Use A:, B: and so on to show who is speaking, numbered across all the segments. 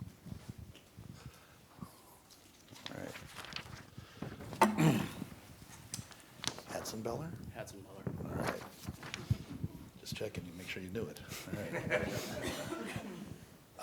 A: Hatzenbeller?
B: Hatzenbeller.
A: All right. Just checking, you make sure you knew it. All right.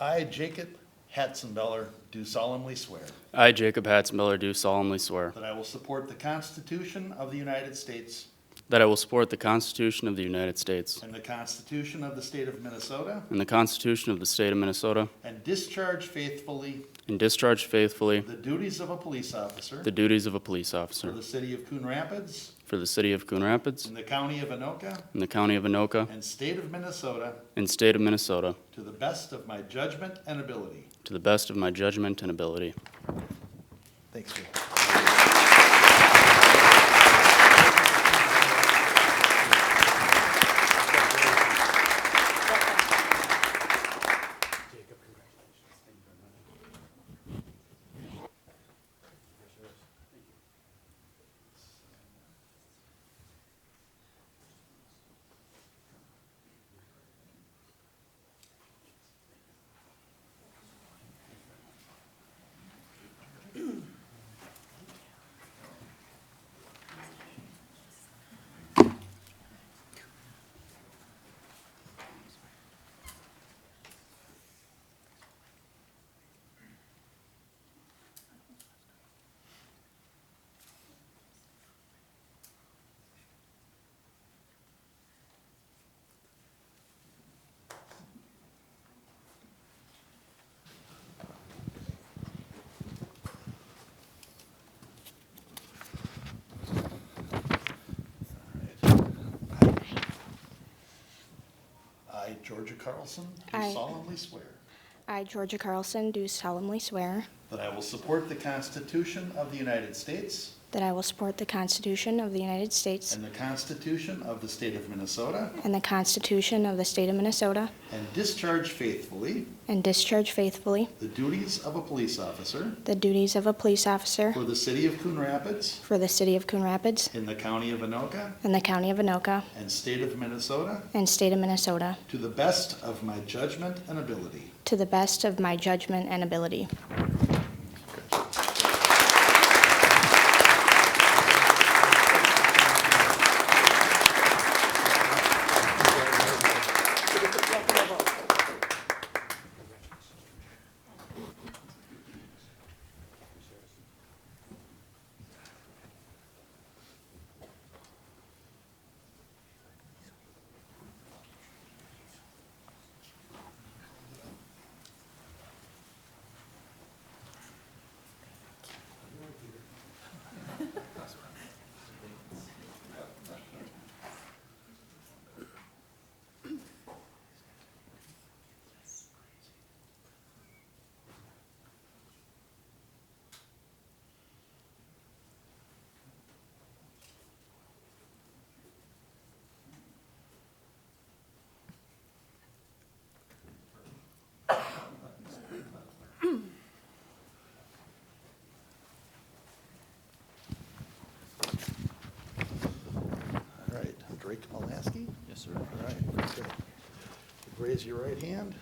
A: I, Jacob Hatzenbeller, do solemnly swear
B: I, Jacob Hatzenbeller, do solemnly swear
A: that I will support the Constitution of the United States
B: that I will support the Constitution of the United States
A: and the Constitution of the State of Minnesota,
B: and the Constitution of the State of Minnesota
A: and discharge faithfully
B: and discharge faithfully
A: the duties of a police officer
B: the duties of a police
A: for
B: officer
A: the city of Coon Rapids
B: for the City of Coon Rapids
A: and the county of Anoka
B: and the County of Anoka
A: and state of Minnesota
B: and State of Minnesota
A: to the best of my judgment and ability.
B: to the best of my judgment and ability.
A: Thanks, Jim. I, Georgia Carlson, do
C: Aye.
A: solemnly swear
C: I, Georgia Carlson, do solemnly swear
A: that I will support the Constitution of the United States
C: that I will support the Constitution of the United States
A: and the Constitution of the State of Minnesota,
C: and the Constitution of the State of Minnesota,
A: and discharge faithfully
C: and discharge faithfully
A: the duties of a police officer
C: the duties of a police officer
A: for the city of Coon Rapids
C: for the City of Coon Rapids
A: in the county of Anoka
C: and the County of Anoka
A: and state of Minnesota
C: and State of Minnesota
A: to the best of my judgment and ability.
C: to the best of my judgment and ability.
A: All right, Drake Malasky? Yes, sir. All right, very good. Raise your right hand.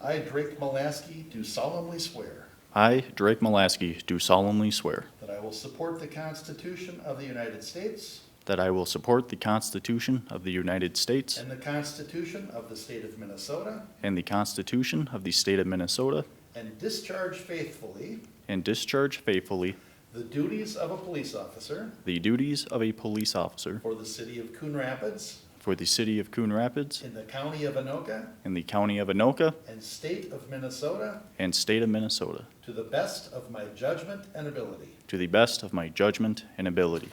A: I, Drake Malasky, do solemnly swear
D: I, Drake Malasky, do solemnly swear
A: that I will support the Constitution of the United States
D: that I will support the Constitution of the United States
A: and the Constitution of the State of Minnesota,
D: and the Constitution of the State of Minnesota,
A: and discharge faithfully
D: and discharge faithfully
A: the duties of a police officer
D: the duties of a police officer
A: for the city of Coon Rapids
D: for the City of Coon Rapids
A: in the county of Anoka
D: and the County of Anoka
A: and state of Minnesota
D: and State of Minnesota,
A: to the best of my judgment and ability.
D: to the best of my judgment and ability.